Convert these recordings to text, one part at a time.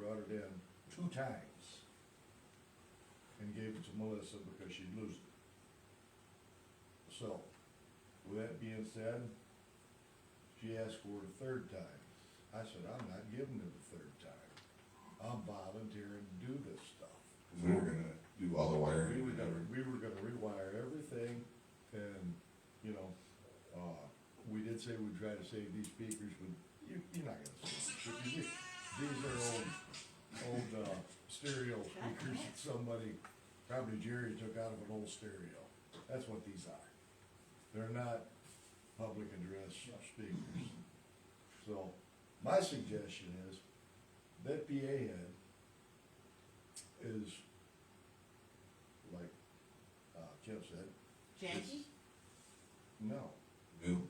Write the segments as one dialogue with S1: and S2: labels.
S1: in two times and gave it to Melissa because she'd lose it. So, with that being said, she asked for it a third time. I said, I'm not giving it a third time. I'm volunteering to do this stuff.
S2: Cause we were gonna do all the wiring.
S1: We were
S2: and
S1: gonna,
S2: everything.
S1: we were gonna rewire everything and, you know, uh, we did say we'd try to save these speakers, but you, you're not gonna save them. These- These are old, old, uh, stereo speakers that somebody, probably Jerry took out of an old stereo. That's what these are. They're not public address speakers. So, my suggestion is, that PA head is like uh, Kim said,
S3: Janky?
S1: no,
S2: New,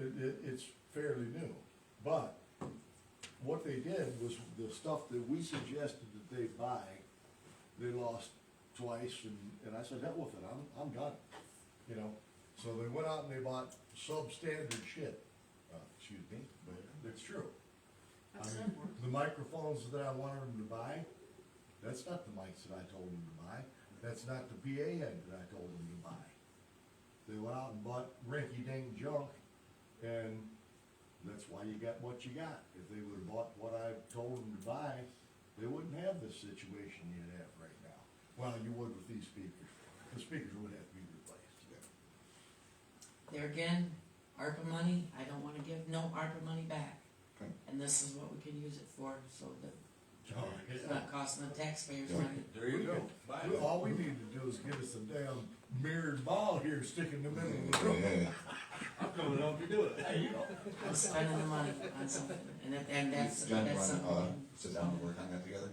S1: it, it, it's fairly new. But what they did was the stuff that we suggested that they buy, they lost twice, and, and I said, hell with it, I'm, I'm done, you know? So they went out and they bought substandard shit, uh, excuse me, but it's true. I
S3: That's
S1: mean,
S3: that word.
S1: The microphones that I wanted them to buy, that's not the mics that I told them to buy, that's not the PA head that I told them to buy. They went out and bought rinky-dink junk, and that's why you got what you got. If they would've bought what I told them to buy, they wouldn't have this situation you have right now. Well, you would with these speakers. The speakers would have to be replaced.
S3: There again, ARPA money, I don't wanna give no ARPA money back.
S2: Okay.
S3: And this is what we can use it for, so that
S1: Oh,
S3: it's
S1: yeah.
S3: not costing the taxpayers
S2: Yeah.
S3: money.
S4: There you go. Buy
S1: We-
S4: it.
S1: All we need to do is give us a damn mirrored ball here, stick in the middle of the room.
S2: yeah,
S4: I'm coming up to do it.
S1: There you go.
S3: I'm spending the money on something, and that, and that's,
S2: John, you
S3: that's
S2: wanna, uh,
S3: something.
S2: sit down and work on that together?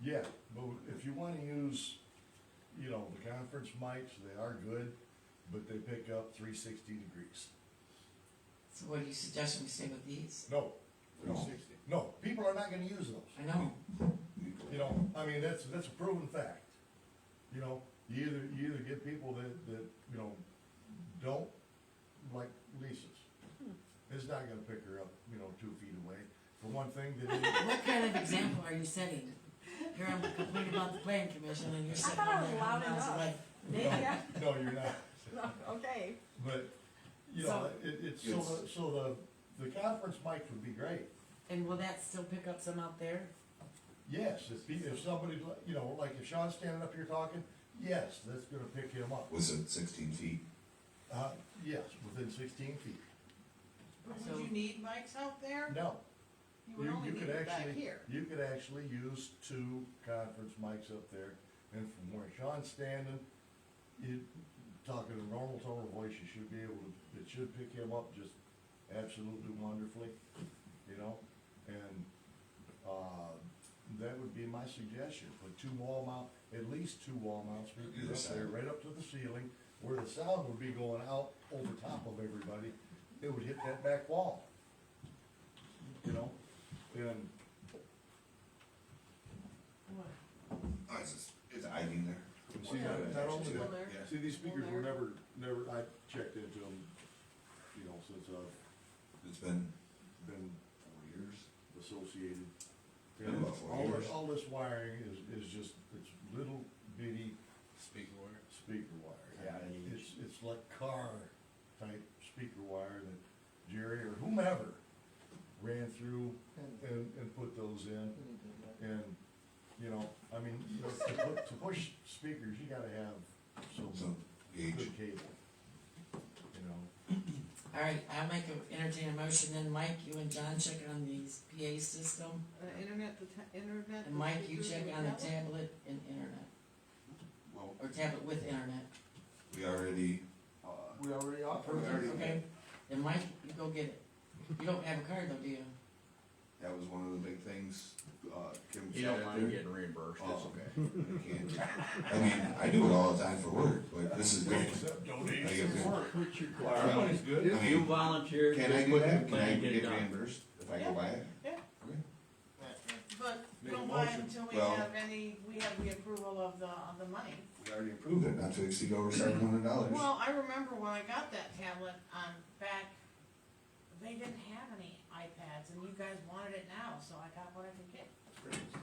S1: Yeah, but if you wanna use, you know, the conference mics, they are good, but they pick up three sixty degrees.
S3: So what do you suggest we stay with these?
S1: No,
S2: No.
S1: no, people are not gonna use those.
S3: I know,
S1: You know, I mean, that's, that's a proven fact. You know, you either, you either get people that, that, you know, don't like Lisa's. It's not gonna pick her up, you know, two feet away. For one thing, they didn't,
S3: what kind of example are you setting? Here I'm complaining about the planning commission, and you're sitting
S5: thought I
S3: on
S5: was
S3: there
S5: loud
S3: miles
S5: enough.
S3: away.
S5: Yeah,
S1: no, you're not.
S5: okay.
S1: But, you know, it, it's, so, the- so the, the conference mics would be great.
S3: And will that still pick up some out there?
S1: Yes, if, he- if somebody, you know, like if Sean's standing up here talking, yes, that's gonna pick him up.
S2: Was it sixteen feet?
S1: Uh, yes, within sixteen feet.
S3: So-
S6: Would you need mics out there?
S1: No,
S6: You would
S1: you,
S6: only
S1: you
S6: need
S1: could
S6: it back
S1: actually,
S6: here.
S1: you could actually use two conference mics up there. And from where Sean's standing, you, talking a normal tone of voice, you should be able to, it should pick him up just absolutely wonderfully, you know? And, uh, that would be my suggestion, put two wall mount, at least two wall mount
S2: Either
S1: speakers up there,
S2: side.
S1: right up to the ceiling, where the sound would be going out over top of everybody, it would hit that back wall. You know, and,
S2: Oh, it's just, it's hiding there.
S1: see, not not only that,
S2: Yeah.
S1: See, these speakers were never, never, I checked into them, you know, since I've
S2: It's been
S1: been
S2: four years.
S1: associated.
S2: Been about four
S1: All
S2: years.
S1: this, all this wiring is, is just, it's little bitty
S4: Speaking word.
S1: speaker wire. Yeah, it's, it's like car type speaker wire that Jerry or whomever ran through and, and put those in. And, you know, I mean, you know, to put, to push speakers, you gotta have some
S2: Some gauge.
S1: good cable, you know?
S3: All right, I'll make a, entertain a motion, then Mike, you and John check on these PA system,
S6: Uh, internet, the ta- internet.
S3: and Mike, you check on the
S6: tablet.
S3: tablet and internet,
S2: Well,
S3: or tablet with internet,
S2: we already, uh,
S1: We already
S2: we already,
S3: okay? Then Mike, you go get it. You don't have a card though, do you?
S2: that was one of the big things, uh, Kim.
S4: You don't
S2: said
S4: mind
S2: there.
S4: getting reimbursed, it's
S2: Oh.
S4: okay.
S2: I can't. I mean, I do it all the time for work, but this is great.
S1: Except
S2: I get paid.
S4: Everybody's good.
S2: I mean,
S4: volunteer,
S2: Can I get that? Can I get reimbursed if I go
S6: Yeah.
S2: buy it?
S6: Yeah.
S2: Okay.
S6: But
S4: Make a
S6: don't buy
S4: motion.
S6: until we
S2: Well-
S6: have any, we have the approval of the, of the money.
S2: We already approved it, not to exceed over seven hundred dollars.
S6: Well, I remember when I got that tablet on back, they didn't have any iPads and you guys wanted it now, so I got what I could get.